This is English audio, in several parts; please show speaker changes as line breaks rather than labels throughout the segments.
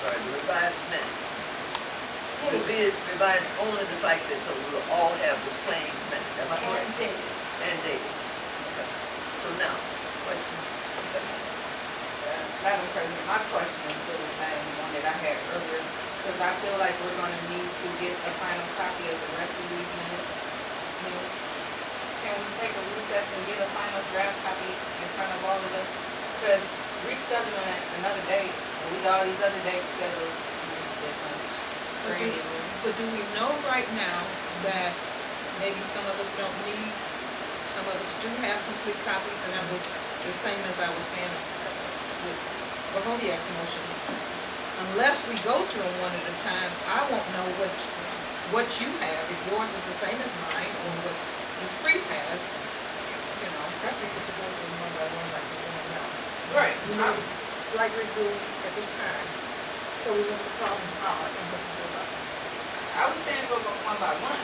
sorry, the revised minutes. The vid revised only the fact that so we'll all have the same minute, am I
And
correct?
date.
And date. Okay. So now, question, discussion.
Uh, Madam President, my question is still the same one that I had earlier, because I feel like we're gonna need to get a final copy of the rest of these minutes. Can can we take a recess and get a final draft copy in front of all of us? Because rescheduling it another day, we got all these other dates scheduled, it's a bit much.
But do-
Granted,
But do we know right now that maybe some of us don't need, some of us do have complete copies, and that was the same as I was saying with Bahovia's motion. Unless we go through them one at a time, I won't know what, what you have, if yours is the same as mine, or what Ms. Priest has, you know.
I think we should go through one by one like we're doing now.
Right,
You know,
I'm-
like we do at this time. So we know what the problems are and what to do about it.
I was saying go by- one by one.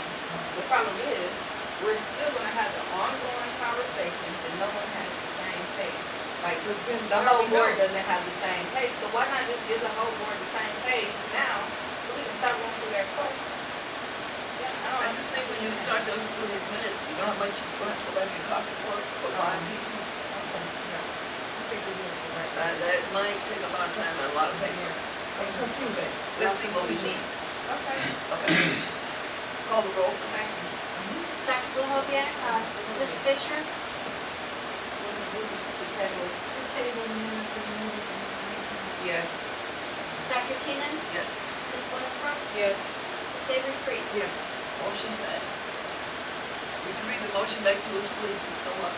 The problem is, we're still gonna have the ongoing conversation, and no one has the same page. Like,
But then
The
how
whole
we
board
know?
doesn't have the same page, so why not just give the whole board the same page now, so we can stop going through their question? Yeah, I
I
don't
just think when you start to look through these minutes, you know how much you're going to go back and copy for, for five people.
I think we're doing it right.
Uh, that might take a lot of time and a lot of paper.
And confusion.
Let's see what we need.
Okay,
Okay. Call the roll, please.
thank you.
Dr. Bohoviac,
Uh,
Ms. Fisher,
This is to table,
The table minutes and meeting minutes.
yes.
Dr. Keenan,
Yes.
Ms. Westbrook,
Yes.
Ms. Avery Priest.
Yes.
Motion passes. Would you read the motion back to us, please, Ms. Nola?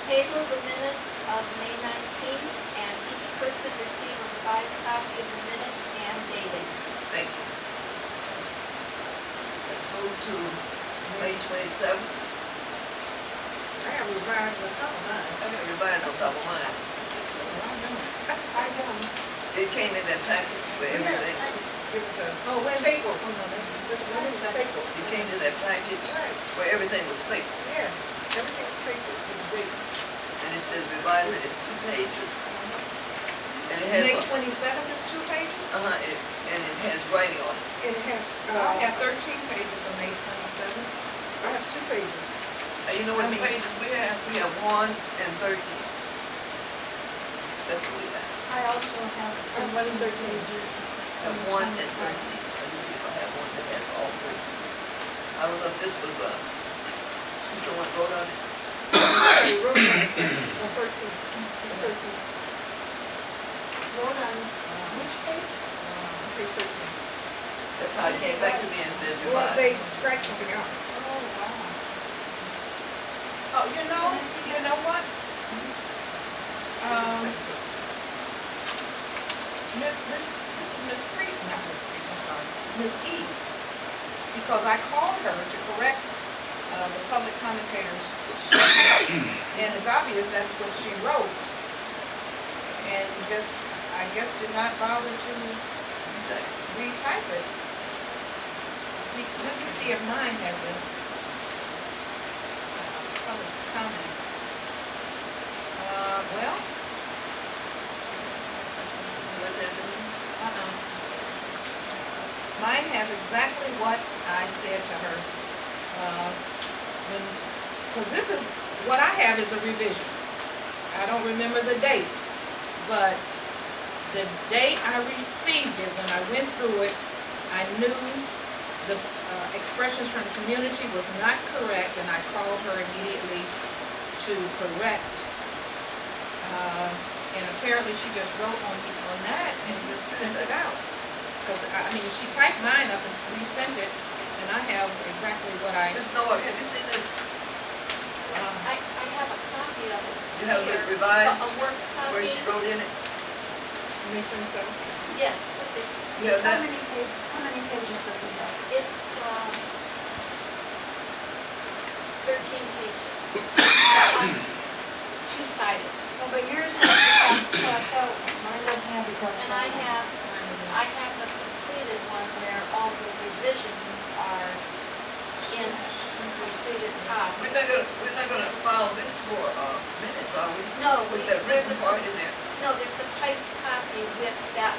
Table the minutes of May 19, and each person receive a revised copy of the minutes and dated.
Thank you. Let's move to May twenty-seventh.
I have revised what's on mine.
I got revised on top of mine. So,
I don't.
It came in that package with
Yeah,
everything.
I just Give it uh, to us.
Oh, wait,
Staple. Oh, no, that's, that is staple.
It came in that package
Right,
where everything was stapled.
yes. Everything's stapled with dates.
And it says revised, and it's two pages. And it
May
has,
twenty-seventh is two pages?
uh-huh, it- and it has writing on it.
It has,
I
uh,
have thirteen pages on May twenty-seventh.
I have two pages.
And Uh, you know what
I mean-
pages we have? We have one and thirteen. That's what we have.
I also have
And one
thirteen
thirteen.
We
pages.
have
from
one and
27.
thirteen. Let me see if I have one that has all thirteen. I don't know if this was, uh, see someone wrote on it?
Okay, Rhode Island, on thirteen, on thirteen. Rhode Island,
Um,
which page?
um,
Page thirteen.
That's how it came back to me and said
Well, they
revised.
scratched something out.
Oh, wow.
Oh, you know, you know what? Um, Miss, Miss, this is Miss Priest, not Miss Priest, I'm sorry, Miss East. Because I called her to correct, uh, the public commentators, which she wrote. and it's obvious that's what she wrote. And just, I guess, did not bother to retype it. We, let me see if mine has a uh, public's comment. Uh, well,
Where's that from?
uh-uh. Mine has exactly what I said to her. uh, when Cause this is, what I have is a revision. I don't remember the date, but the day I received it, when I went through it, I knew the uh, expressions from the community was not correct, and I called her immediately to correct. Uh, And apparently, she just wrote on, on that and just sent it out. Because, I I mean, she typed mine up and resent it, and I have exactly what I,
Ms. Noah, have you seen this?
um,
I, I have a copy of it.
You have it
here,
revised
A work
where
copy.
she wrote in it?
May twenty-seventh.
Yes, but it's,
You have
How
that?
many pa, how many pages does it have?
it's, um, thirteen pages. Uh, Two-sided.
Well, but yours has the crossed out one, mine doesn't have the crossed
And I
out one.
have I have the completed one where all the revisions are in completed
We're
copy.
not gonna, we're not gonna file this for, uh, minutes, are we?
No, we-
With that
there's
written
a-
part in there?
No, there's a typed copy with that